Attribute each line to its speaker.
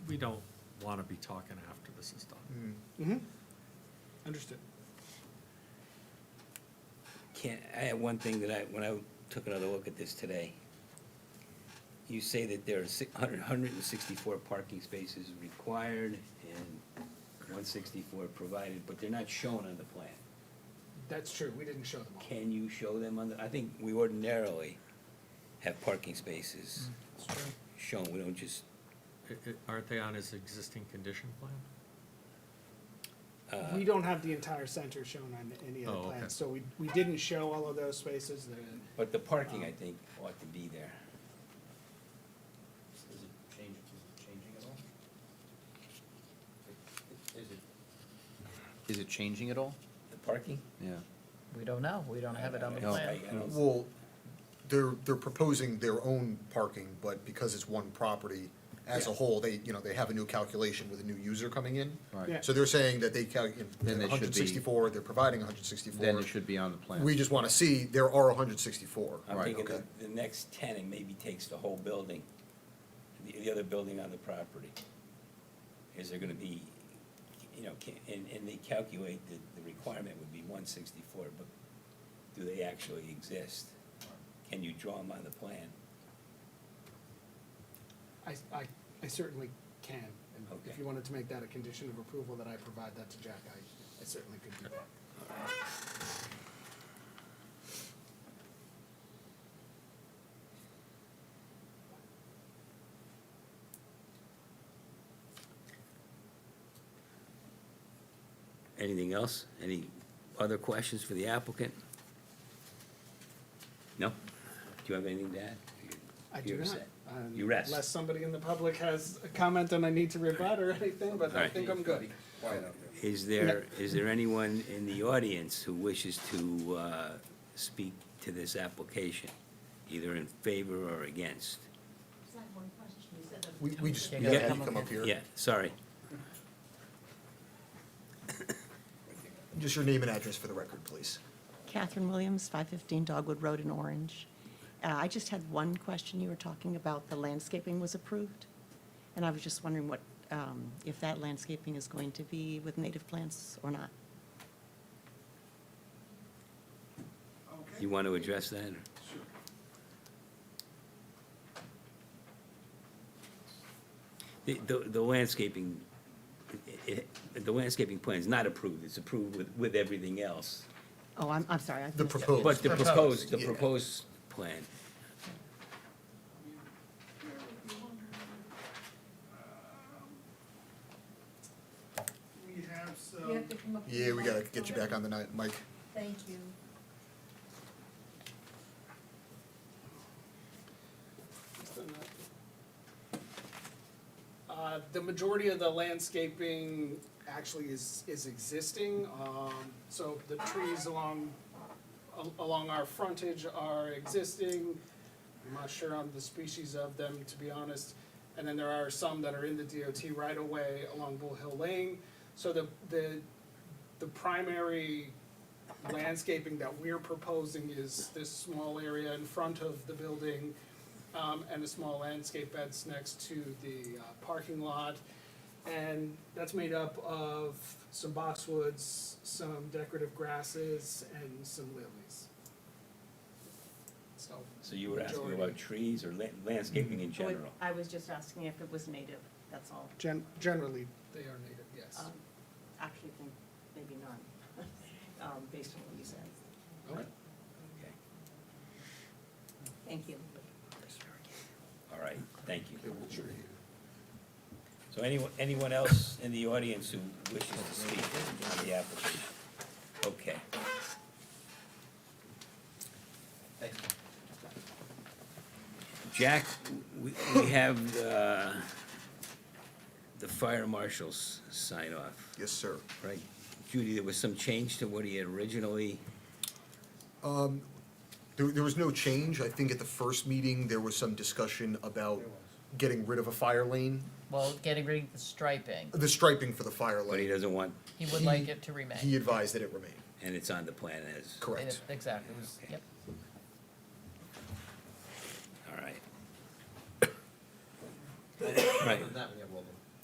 Speaker 1: don't want to be talking after this is done.
Speaker 2: Mm-hmm. Understood.
Speaker 3: Can't, I have one thing that I, when I took another look at this today, you say that there are six, hundred, hundred and sixty-four parking spaces required and one sixty-four provided, but they're not shown on the plan.
Speaker 2: That's true. We didn't show them all.
Speaker 3: Can you show them on the, I think we ordinarily have parking spaces
Speaker 4: Mm,
Speaker 2: It's true.
Speaker 3: shown, we don't just,
Speaker 1: I- I- Aren't they on his existing condition plan?
Speaker 3: uh,
Speaker 2: We don't have the entire center shown on any of
Speaker 1: Oh,
Speaker 2: the
Speaker 1: okay.
Speaker 2: plans, so we, we didn't show all of those spaces. The
Speaker 3: but the
Speaker 4: Oh.
Speaker 3: parking, I think, ought to be there.
Speaker 5: Is it change, is it changing at all? Is it? Is it changing at all?
Speaker 3: The parking?
Speaker 5: Yeah.
Speaker 4: We don't know, we don't have it on the
Speaker 3: No,
Speaker 4: plan.
Speaker 3: I- I don't-
Speaker 6: Well, they're, they're proposing their own parking, but because it's one property as a
Speaker 3: Yeah.
Speaker 6: whole, they, you know, they have a new calculation with a new user coming in.
Speaker 5: Right.
Speaker 2: Yeah.
Speaker 6: So they're saying that they calc,
Speaker 5: Then they should be-
Speaker 6: hundred sixty-four, they're providing hundred sixty-four.
Speaker 5: Then it should be on the plan.
Speaker 6: We just wanna see, there are hundred sixty-four.
Speaker 3: I'm
Speaker 5: Right,
Speaker 3: thinking
Speaker 6: okay.
Speaker 3: the, the next tenant maybe takes the whole building, the, the other building on the property. Is there gonna be, you know, can, and, and they calculate that the requirement would be one sixty-four, but do they actually exist? Can you draw them on the plan?
Speaker 2: I, I, I certainly can. And if
Speaker 3: Okay.
Speaker 2: you wanted to make that a condition of approval that I provide that to Jack, I, I certainly could do that.
Speaker 3: Anything else? Any other questions for the applicant? No? Do you have anything to add?
Speaker 2: I do
Speaker 3: You're
Speaker 2: not.
Speaker 3: set.
Speaker 2: um,
Speaker 3: You rest.
Speaker 2: Unless somebody in the public has a comment and I need to rebut or anything, but I
Speaker 3: Alright.
Speaker 2: think I'm good.
Speaker 3: Is there, is there anyone in the audience who wishes to uh, speak to this application, either in favor or against?
Speaker 7: Just have one question. You said that.
Speaker 6: We, we just,
Speaker 4: Can
Speaker 6: we
Speaker 4: you
Speaker 6: had
Speaker 3: come
Speaker 6: you
Speaker 4: up
Speaker 6: come up here.
Speaker 3: Yeah, sorry.
Speaker 6: Just your name and address for the record, please.
Speaker 7: Catherine Williams, 515 Dogwood Road in Orange. Uh, I just had one question. You were talking about the landscaping was approved, and I was just wondering what, um, if that landscaping is going to be with native plants or not.
Speaker 3: You want to address that? or- The, the the landscaping, i- i- the landscaping plan is not approved, it's approved with, with everything else.
Speaker 7: Oh, I'm, I'm sorry. I
Speaker 6: The
Speaker 7: missed it.
Speaker 6: proposed.
Speaker 3: But the proposed, the
Speaker 6: Yeah.
Speaker 3: proposed plan,
Speaker 8: We have some.
Speaker 9: You have to come up to
Speaker 6: Yeah,
Speaker 9: the
Speaker 6: we gotta
Speaker 9: mic.
Speaker 6: get you back on the night, Mike.
Speaker 9: Thank you.
Speaker 2: Uh, The majority of the landscaping actually is, is existing. Um, So the trees along, al- along our frontage are existing. I'm not sure on the species of them, to be honest. And then there are some that are in the DOT right away along Bull Hill Lane. So the, the, the primary landscaping that we're proposing is this small area in front of the building um, and the small landscape beds next to the uh, parking lot. And that's made up of some boxwoods, some decorative grasses, and some lilies. So,
Speaker 3: so you were asking
Speaker 2: Majority.
Speaker 3: about trees or la- landscaping in
Speaker 7: Oh, it-
Speaker 3: general?
Speaker 7: I was just asking if it was native, that's all.
Speaker 2: gen- generally, they are native, yes.
Speaker 7: Um, Actually, I think maybe none, um, based on what you said.
Speaker 2: Okay.
Speaker 3: Okay.
Speaker 7: Thank you.
Speaker 3: All right, thank you. So anyone, anyone else in the audience who wishes to speak on the application? Okay. Jack, we, we have, uh, the fire marshal's sign off,
Speaker 6: Yes, sir.
Speaker 3: right? Judy, there was some change to what he had originally,
Speaker 6: There, there was no change. I think at the first meeting, there was some discussion about getting rid of a fire lane,
Speaker 4: Well, getting rid of the striping,
Speaker 6: the striping for the fire
Speaker 3: but he
Speaker 6: lane.
Speaker 3: doesn't want,
Speaker 4: he would like it to remain.
Speaker 6: He advised that it remain.
Speaker 3: and it's on the plan as,
Speaker 4: And
Speaker 6: Correct.
Speaker 4: it- Exactly, it was, yep.
Speaker 3: all right. Right,
Speaker 5: That we have all